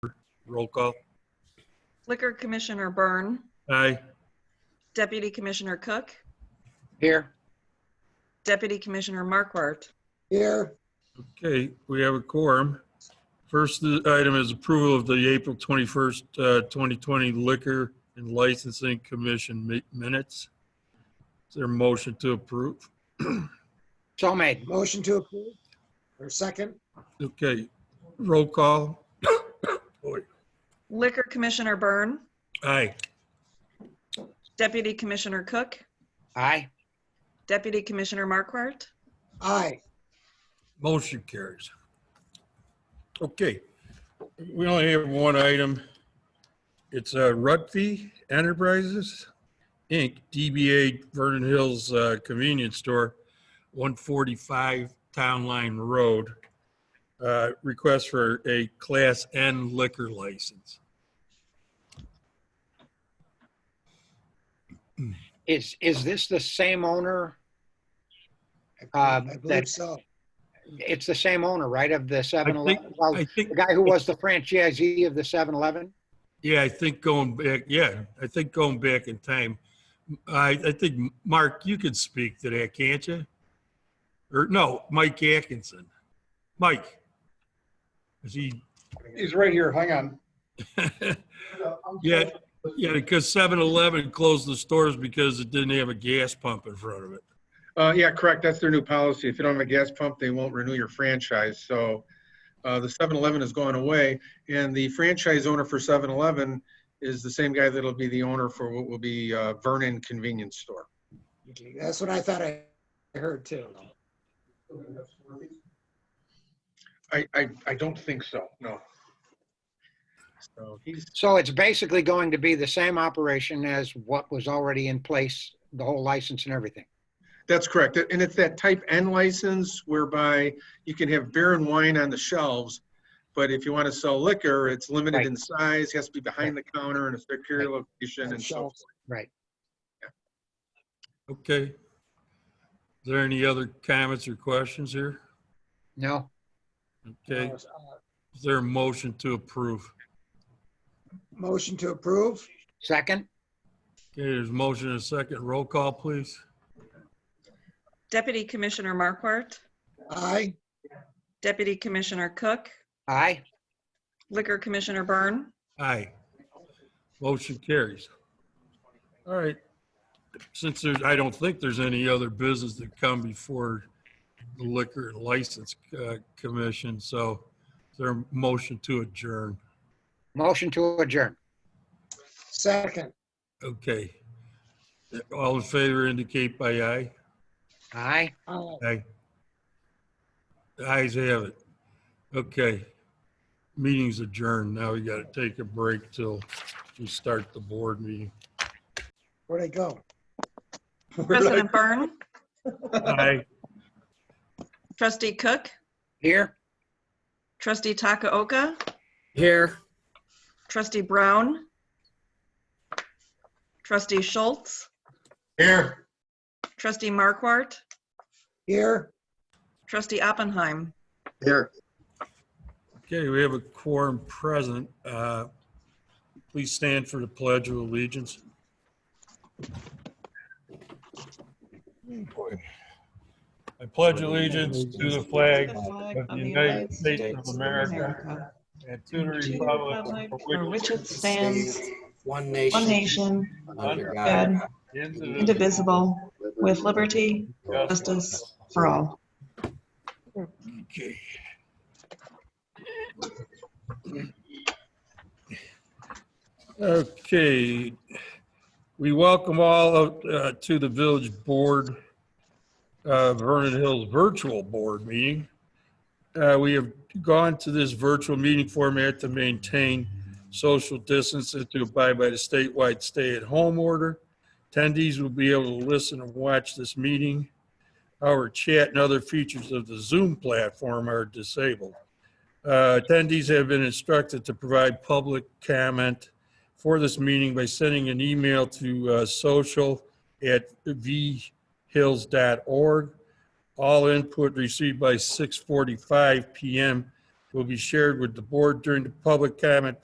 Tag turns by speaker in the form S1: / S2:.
S1: Roll call.
S2: Liquor Commissioner Byrne,
S1: Aye.
S2: Deputy Commissioner Cook,
S3: Here.
S2: Deputy Commissioner Markwart.
S4: Here,
S1: Okay, we have a quorum. First uh, item is approval of the April 21st, uh, 2020 Liquor and Licensing Commission mi- minutes. Is there a motion to approve?
S3: So made.
S4: motion to approve, or second?
S1: Okay, roll call.
S2: Liquor Commissioner Byrne,
S1: Aye.
S2: Deputy Commissioner Cook,
S3: Aye.
S2: Deputy Commissioner Markwart.
S4: Aye,
S1: Motion carries. Okay, we only have one item. It's uh, Rutfi Enterprises, Inc., DBA Vernon Hills uh, Convenience Store, 145 Town Line Road. Uh, Request for a Class N liquor license.
S3: Is, is this the same owner?
S4: I
S3: Um,
S4: believe
S3: that-
S4: so.
S3: It's the same owner, right, of the Seven Eleven?
S1: think-
S3: Well,
S1: I think,
S3: the guy who was the franchisee of the Seven Eleven?
S1: yeah, I think going back, yeah, I think going back in time, I, I think, Mark, you can speak to that, can't you? Or no, Mike Atkinson. Mike. Is he,
S5: He's right here, hang on.
S1: yeah, yeah, because 7-Eleven closed the stores because it didn't have a gas pump in front of it.
S5: Uh, yeah, correct, that's their new policy. If you don't have a gas pump, they won't renew your franchise, so, uh, the 7-Eleven has gone away, and the franchise owner for 7-Eleven is the same guy that'll be the owner for what will be, uh, Vernon Convenience Store.
S4: That's what I thought I heard too.
S5: I, I, I don't think so, no. So he's,
S3: So it's basically going to be the same operation as what was already in place, the whole license and everything.
S5: That's correct. And it's that type N license whereby you can have beer and wine on the shelves, but if you want to sell liquor, it's limited
S3: Right.
S5: in size, has to be behind the counter in a secure location and so forth.
S4: Shelves.
S3: Right.
S1: Okay. Is there any other comments or questions here?
S3: No?
S1: Okay,
S4: Uh,
S1: is there a motion to approve?
S4: Motion to approve?
S3: Second?
S1: Okay, there's a motion and a second. Roll call, please.
S2: Deputy Commissioner Markwart,
S4: Aye,
S2: Deputy Commissioner Cook,
S3: Aye.
S2: Liquor Commissioner Byrne,
S1: Aye. Motion carries. All right. Since there's, I don't think there's any other business that come before the Liquor and License uh, Commission, so is there a motion to adjourn.
S3: Motion to adjourn.
S4: second.
S1: Okay. All in favor indicate by aye.
S3: Aye.
S4: Aye.
S1: Aye. The ayes have it. Okay. Meeting's adjourned. Now we gotta take a break till we start the board meeting.
S4: Where'd I go?
S2: President Byrne,
S1: Aye.
S2: Trustee Cook,
S3: Here?
S2: Trustee Takaoka,
S3: Here.
S2: Trustee Brown, Trustee Schultz,
S5: Here.
S2: Trustee Markwart,
S4: Here?
S2: Trustee Oppenheim.
S5: Here.
S1: Okay, we have a quorum present. Uh, Please stand for the pledge of allegiance. I pledge allegiance to the flag of the United States of America and to the republic for which
S6: it stands,
S7: One nation.
S6: one nation,
S7: under God,
S6: God, indivisible, with liberty,
S7: justice
S6: justice for all.
S1: Okay. Okay, we welcome all uh, to the village board, uh, Vernon Hills Virtual Board Meeting. Uh, We have gone to this virtual meeting format to maintain social distance and to abide by the statewide stay-at-home order. Attendees will be able to listen and watch this meeting. Our chat and other features of the Zoom platform are disabled. Uh, Attendees have been instructed to provide public comment for this meeting by sending an email to uh, social@vhills.org. All input received by 6:45 PM will be shared with the board during the public comment